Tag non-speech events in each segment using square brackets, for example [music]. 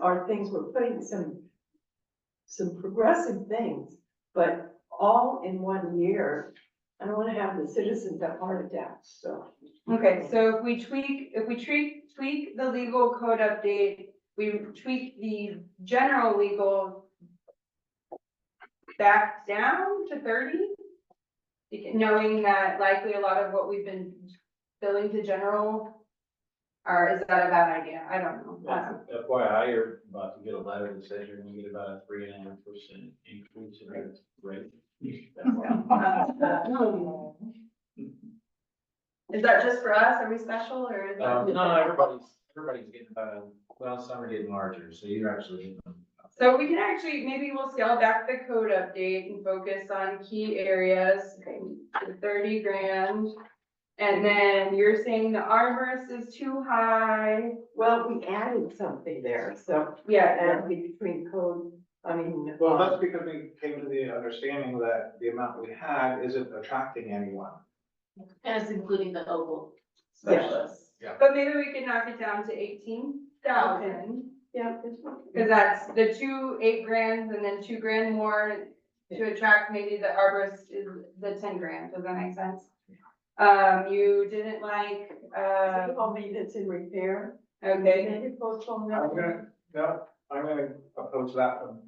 are things, we're putting some, some progressive things, but all in one year. I don't wanna have the citizens have heart attacks, so. Okay, so if we tweak, if we tweak, tweak the legal code update, we tweak the general legal back down to thirty? Beca- Knowing that likely a lot of what we've been billing to general are, is that a bad idea? I don't know. Um, I don't- FYI, you're about to get a letter that says you're gonna get about a three and a half percent increase in your [laughs] rate. Uh, Is that just for us? Are we special or? is that- Um, no, everybody's, everybody's getting, uh, well, some are getting larger, so you're actually getting them. So we can actually, maybe we'll scale back the code update and focus on key areas, the thirty grand. And then you're saying the arborist is too high, Well, we added something there, so yeah, that'd be between code, I mean. Well, that's because we came to the understanding that the amount we had isn't attracting anyone. And it's including the local Yeah, specialists. but maybe we can knock it down to eighteen thousand. yeah, it's one. Cause that's the two eight grands and then two grand more to attract maybe the arborist is the ten grand, does that make sense? Um, you didn't like, uh, City hall maintenance and repair. okay. Maybe postpone I'm that. gonna, no, I'm gonna oppose that one.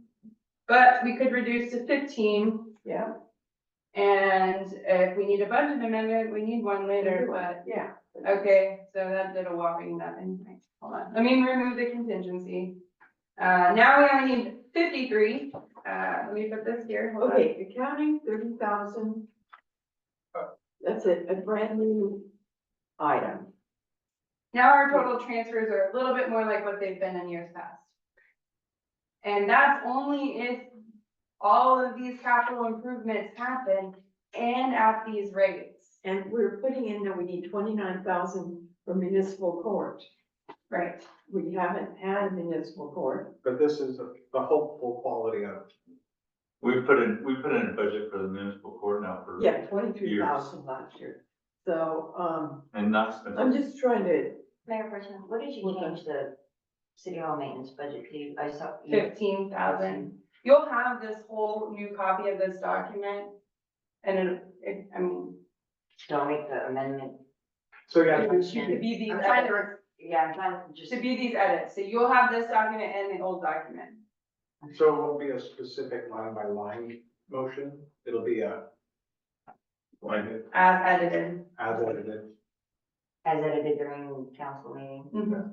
But we could reduce to fifteen, Yeah, and if we need a budget amendment, we need one later, but, yeah. okay, so that did a whopping nothing, Wait, hold on, let me remove the contingency. Uh, now we only need fifty-three, uh, let me put this here, hold on, Okay, accounting, thirty thousand. That's it, a brand new item. now our total transfers are a little bit more like what they've been in years past. And that's only if all of these capital improvements happen and at these rates. And we're putting in that we need twenty-nine thousand for municipal court. Right. We haven't had municipal court. but this is the the hopeful quality of We put in, we put in a budget for the municipal court now for, Yeah, twenty-three thousand last year. So, um, and not spent. I'm just trying to, Mayor Person, what did you Well, change the city hall maintenance budget to? I saw. you- fifteen thousand. You'll have this whole new copy of this document. And it, it, I mean, Don't make the amendment. So yeah, to be these I'm trying to, edits, re- yeah, I'm trying to just, to be these edits, so you'll have this document and the old document. so it won't be a specific line by line motion, it'll be a like As edited. as edited. as edited during council meeting.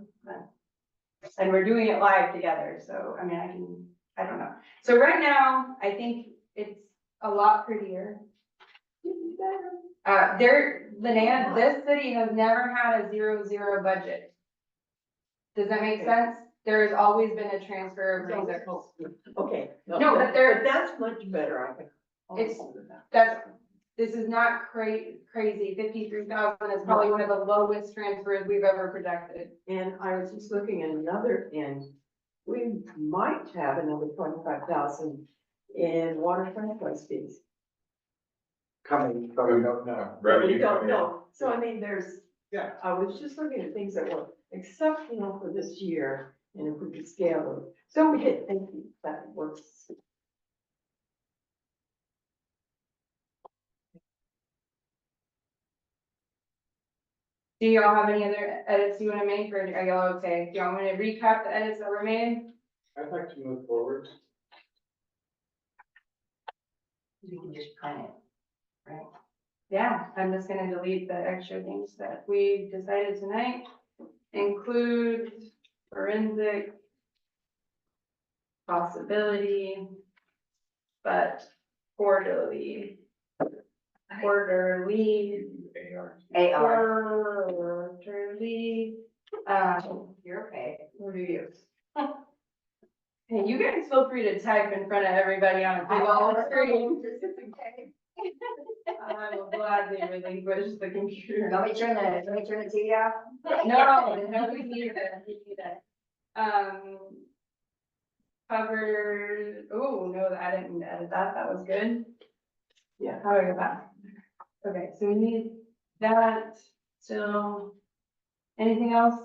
And we're doing it live together, so, I mean, I can, I don't know. So right now, I think it's a lot prettier. Uh, there, Linnea, this city has never had a zero, zero budget. Does that make sense? There has always been a transfer of reserves. okay. No, but there- That's much better, I think. It's- That's, this is not cra- crazy, fifty-three thousand is probably one of the lowest transfers we've ever projected. And I was just looking at another end, we might have another twenty-five thousand in water franchise fees. Coming, but we don't know. We don't know, so I mean, there's, Yeah. I was just looking at things that were exceptional for this year, and if we could scale them, so we could, thank you, that works. Do y'all have any other edits you wanna make, or are y'all okay? Do y'all wanna recap the edits that were made? I'd like to move forward. We can just print it. Yeah, I'm just gonna delete the extra things that we decided tonight, include forensic possibility, but orderly, orderly. AR. AR, Quarterly, uh, you're okay. reviews. [laughs] Hey, you guys feel free to type in front of everybody on a big old [laughs] screen. I will gladly relinquish the computer. [laughs] Let me turn the, let me turn the TV off. No, no, we need that, we need that. Um. Cover, oh, no, I didn't edit that, that was good. Yeah. How do I go back? Okay, so we need that, so. Anything else?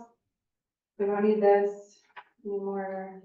We don't need this, Any more?